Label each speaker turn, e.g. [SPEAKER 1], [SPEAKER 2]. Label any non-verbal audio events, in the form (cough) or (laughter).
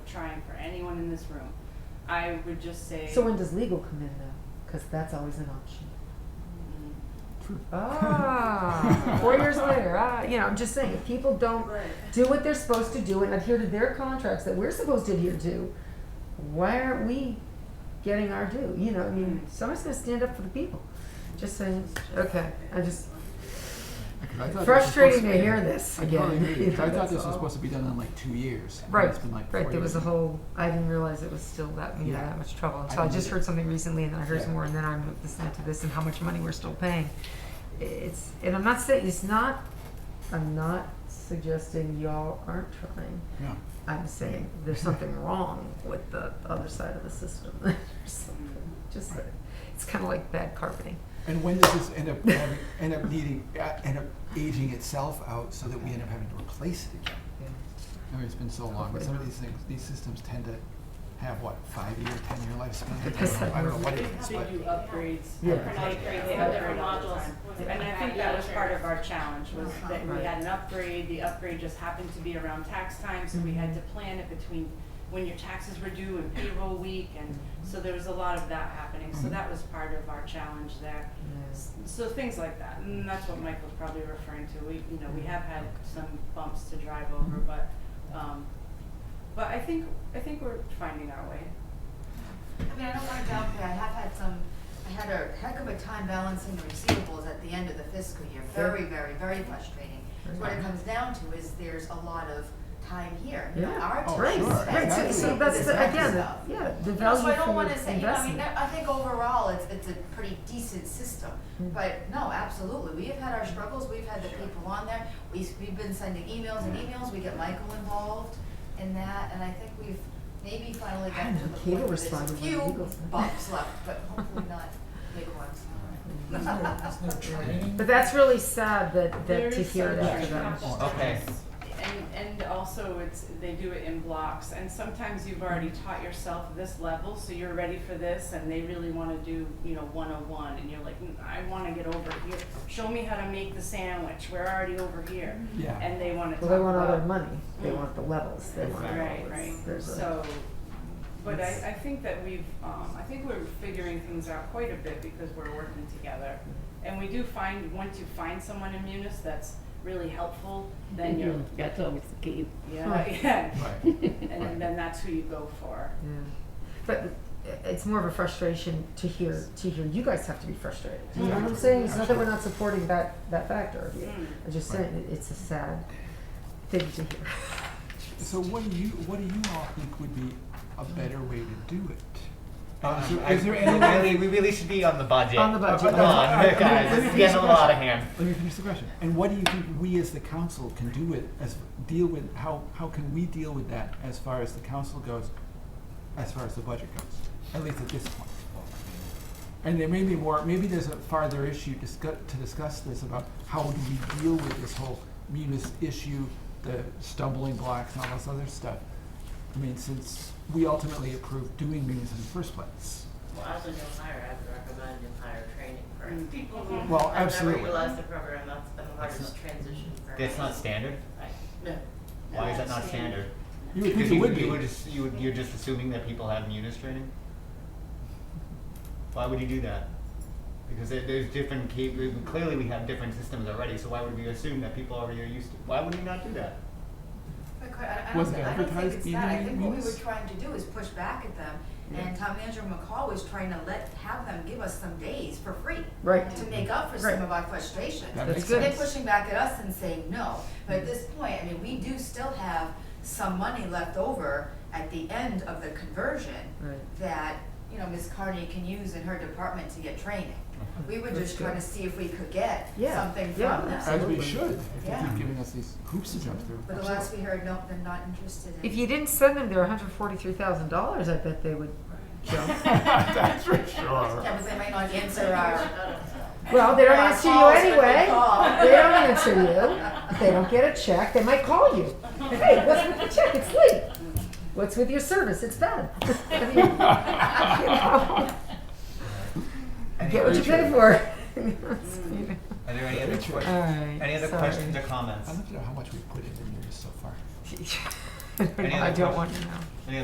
[SPEAKER 1] trying for anyone in this room. I would just say.
[SPEAKER 2] So when does legal come in though? Because that's always an option.
[SPEAKER 1] Mm,
[SPEAKER 2] (laughs) Ah, four years later, ah, you know, I'm just saying, if people don't
[SPEAKER 1] Right.
[SPEAKER 2] do what they're supposed to do and adhere to their contracts that we're supposed to adhere to, why aren't we getting our due? You know, I mean, somebody's gonna stand up for the people. Just saying, okay, I just,
[SPEAKER 3] I thought this was
[SPEAKER 2] frustrating to
[SPEAKER 3] supposed be-
[SPEAKER 2] hear this
[SPEAKER 3] I totally
[SPEAKER 2] again. (laughs)
[SPEAKER 3] agree.
[SPEAKER 2] You know,
[SPEAKER 3] I thought
[SPEAKER 2] that's
[SPEAKER 3] this
[SPEAKER 2] all.
[SPEAKER 3] was supposed to be done in like two years. and
[SPEAKER 2] right,
[SPEAKER 3] It's been like four
[SPEAKER 2] right, there was a
[SPEAKER 3] years.
[SPEAKER 2] whole, I didn't realize it was still that, you know,
[SPEAKER 3] Yeah.
[SPEAKER 2] that much trouble.
[SPEAKER 3] I
[SPEAKER 2] So I
[SPEAKER 3] didn't
[SPEAKER 2] just
[SPEAKER 3] either.
[SPEAKER 2] heard something recently and then I heard
[SPEAKER 3] Yeah.
[SPEAKER 2] some more and then I'm listening to this and how much money we're still paying. It's, and I'm not saying, it's not, I'm not suggesting y'all aren't trying.
[SPEAKER 3] Yeah.
[SPEAKER 2] I'm saying there's something
[SPEAKER 3] (laughs)
[SPEAKER 2] wrong with the other side of the system. (laughs) There's something- Just, it's kind of like bad carpeting.
[SPEAKER 3] And when does this end up, having- end up needing, uh, end up aging itself out so that we end up having to replace it again? I mean, it's been so long, but some of these things, these systems tend to have, what, five-year, ten-year lifespan? I don't know- I don't know what it is,
[SPEAKER 1] They
[SPEAKER 3] but.
[SPEAKER 1] do upgrades. Every
[SPEAKER 2] Yeah.
[SPEAKER 4] They
[SPEAKER 1] upgrade,
[SPEAKER 4] upgrade,
[SPEAKER 1] they
[SPEAKER 4] they
[SPEAKER 1] upgrade
[SPEAKER 4] upgrade
[SPEAKER 1] all the
[SPEAKER 4] modules.
[SPEAKER 1] time.
[SPEAKER 4] Yeah.
[SPEAKER 1] And I think that was part of our challenge, was that we
[SPEAKER 2] Uh-huh. Right.
[SPEAKER 1] had an upgrade, the upgrade just happened to be around tax time, so we
[SPEAKER 2] Mm-hmm.
[SPEAKER 1] had to plan it between when your taxes were due and payroll week, and
[SPEAKER 2] Mm-hmm.
[SPEAKER 1] so there was a lot of that happening, so
[SPEAKER 3] Mhm.
[SPEAKER 1] that was part of our challenge there. S- So things like that, and that's what Michael's probably referring to, we, you know, we have had some bumps to drive over, but, um, but I think, I think we're finding our way.
[SPEAKER 4] I mean, I don't wanna downplay, I have had some, I had a heck of a time balancing the receivables at the end of the fiscal year, very, very, very frustrating. So What it comes down to is there's a lot of time here, you know,
[SPEAKER 2] Yeah.
[SPEAKER 4] our
[SPEAKER 3] Oh,
[SPEAKER 4] time.
[SPEAKER 2] Right,
[SPEAKER 3] sure,
[SPEAKER 2] right, so, so
[SPEAKER 3] exactly.
[SPEAKER 2] that's,
[SPEAKER 4] This
[SPEAKER 2] the-
[SPEAKER 4] type of
[SPEAKER 2] again,
[SPEAKER 4] stuff.
[SPEAKER 2] the- yeah, the
[SPEAKER 4] You know,
[SPEAKER 2] value
[SPEAKER 4] so I don't
[SPEAKER 2] for
[SPEAKER 4] wanna say, you know, I mean,
[SPEAKER 2] investment.
[SPEAKER 4] I I think overall, it's, it's a pretty decent system,
[SPEAKER 2] Mm.
[SPEAKER 4] but no, absolutely, we have had our struggles, we've had the people on there, we, s- we've been sending emails and emails, we get Michael involved in that, and I think we've maybe finally
[SPEAKER 2] I don't
[SPEAKER 4] gotten to
[SPEAKER 2] know,
[SPEAKER 4] the
[SPEAKER 2] Kato
[SPEAKER 4] point where there's a
[SPEAKER 2] responded when
[SPEAKER 4] few
[SPEAKER 2] Eagles-
[SPEAKER 4] bumps left, but hopefully not big
[SPEAKER 2] (laughs)
[SPEAKER 4] ones.
[SPEAKER 5] There's no, there's no training.
[SPEAKER 2] But that's really sad that,
[SPEAKER 1] There
[SPEAKER 2] that to
[SPEAKER 1] is
[SPEAKER 2] hear
[SPEAKER 1] some
[SPEAKER 2] that
[SPEAKER 1] church
[SPEAKER 2] about.
[SPEAKER 1] couples
[SPEAKER 5] Oh, okay.
[SPEAKER 1] that is- And, and also it's, they do it in blocks, and sometimes you've already taught yourself this level, so you're ready for this, and they really wanna do, you know, one oh one, and you're like, "Mm, I wanna get over here, show me how to make the sandwich, we're already over here,
[SPEAKER 3] Yeah,
[SPEAKER 1] and they wanna talk
[SPEAKER 2] Mm-hmm. Well, they want all their
[SPEAKER 1] about-
[SPEAKER 2] money, they
[SPEAKER 1] Mm.
[SPEAKER 2] want the levels, they want all
[SPEAKER 1] Right,
[SPEAKER 2] this,
[SPEAKER 1] right,
[SPEAKER 2] there's a.
[SPEAKER 1] so, but I, I think that we've, um, I think we're figuring things out quite a bit because we're working together. And we do find, once you find someone in Munis that's really helpful, then you're,
[SPEAKER 6] Mm-hmm.
[SPEAKER 7] That's always the key.
[SPEAKER 1] yeah, (laughs) yeah,
[SPEAKER 3] right.
[SPEAKER 1] and then- then that's who you go for.
[SPEAKER 2] Yeah, but it's more of a frustration to hear, to hear, you guys have to be frustrated, you know what I'm saying? It's not that we're not supporting that, that factor of you,
[SPEAKER 1] Mm.
[SPEAKER 2] I'm just saying, it- it's a sad thing to hear. (laughs)
[SPEAKER 3] So what do you, what do you all think would be a better way to do it? Uh, so
[SPEAKER 5] Um, I-
[SPEAKER 3] is there any way-
[SPEAKER 5] really, we really should be on the budget.
[SPEAKER 2] On the budget.
[SPEAKER 5] Come on,
[SPEAKER 3] Okay.
[SPEAKER 5] guys, this is getting a lot of hand.
[SPEAKER 3] Let me finish the question. And what do you think we as the council can do with, as, deal with, how, how can we deal with that as far as the council goes, as far as the budget goes, at least at this point? And there may be more, maybe there's a farther issue discuss, to discuss this about how do we deal with this whole munis issue, the stumbling blocks and all this other stuff. I mean, since we ultimately approved doing munis in the first place.
[SPEAKER 6] Well, as a new hire, I would recommend new hire training for people who.
[SPEAKER 3] Well,
[SPEAKER 6] have never
[SPEAKER 3] absolutely.
[SPEAKER 6] utilized the program, that's been the hardest transition for me.
[SPEAKER 5] That's not standard?
[SPEAKER 6] Right. No.
[SPEAKER 5] Why is that not standard?
[SPEAKER 3] You would think
[SPEAKER 5] Because
[SPEAKER 3] it
[SPEAKER 5] you-
[SPEAKER 3] would be.
[SPEAKER 5] You would, ass- you would, you're just assuming that people have munis training? Why would you do that? Because there, there's different, cap- clearly we have different systems already, so why would we assume that people already are used to, why would we not do that?
[SPEAKER 4] But quite- I, I don't,
[SPEAKER 3] Wasn't
[SPEAKER 4] thi- I don't think
[SPEAKER 3] advertised
[SPEAKER 4] it's
[SPEAKER 3] in
[SPEAKER 4] that, I
[SPEAKER 3] the
[SPEAKER 4] think what we were
[SPEAKER 3] rules.
[SPEAKER 4] trying to do is push back at them, and Tom Andrew McCall was trying to let, have them give us some days for free.
[SPEAKER 2] Right.
[SPEAKER 4] To make up for
[SPEAKER 2] Right.
[SPEAKER 4] some of our frustrations.
[SPEAKER 3] That
[SPEAKER 2] That's
[SPEAKER 3] makes
[SPEAKER 2] good.
[SPEAKER 4] So they're
[SPEAKER 3] sense.
[SPEAKER 4] pushing back at us and saying no, but at this point, I mean, we do still have some money left over at the end of the conversion
[SPEAKER 2] Right.
[SPEAKER 4] that, you know, Ms. Carney can use in her department to get training. We were
[SPEAKER 2] That's
[SPEAKER 4] just trying to
[SPEAKER 2] good.
[SPEAKER 4] see if we could get
[SPEAKER 2] Yeah,
[SPEAKER 4] something
[SPEAKER 2] yeah, Uh,
[SPEAKER 4] from them.
[SPEAKER 3] As we
[SPEAKER 2] Absolutely.
[SPEAKER 3] should, if they
[SPEAKER 4] Yeah.
[SPEAKER 3] keep giving us these hoops to jump through.
[SPEAKER 4] But the last we heard, no, they're not interested in.
[SPEAKER 2] If you didn't send them their hundred forty-three thousand dollars, I bet they would
[SPEAKER 1] (laughs)
[SPEAKER 2] jump.
[SPEAKER 3] That's for sure.
[SPEAKER 4] Yeah, but they might not answer uh, our.
[SPEAKER 2] Well, they don't
[SPEAKER 4] our
[SPEAKER 2] answer you
[SPEAKER 4] calls when we
[SPEAKER 2] anyway,
[SPEAKER 4] call.
[SPEAKER 2] they don't answer you, If they don't get a check, they might call you. Hey, what's with the check, it's late, what's with your service, it's bad. (laughs) I mean, you know,
[SPEAKER 3] (laughs)
[SPEAKER 2] (laughs) Get what you pay for.
[SPEAKER 5] Are there any
[SPEAKER 2] All
[SPEAKER 5] other questions?
[SPEAKER 2] right.
[SPEAKER 5] Any other
[SPEAKER 2] (laughs)
[SPEAKER 5] questions or
[SPEAKER 2] Uh-huh.
[SPEAKER 5] comments?
[SPEAKER 3] I don't know how much we've put in the news so far.
[SPEAKER 2] I
[SPEAKER 5] other
[SPEAKER 2] don't
[SPEAKER 5] questions?
[SPEAKER 2] want to know.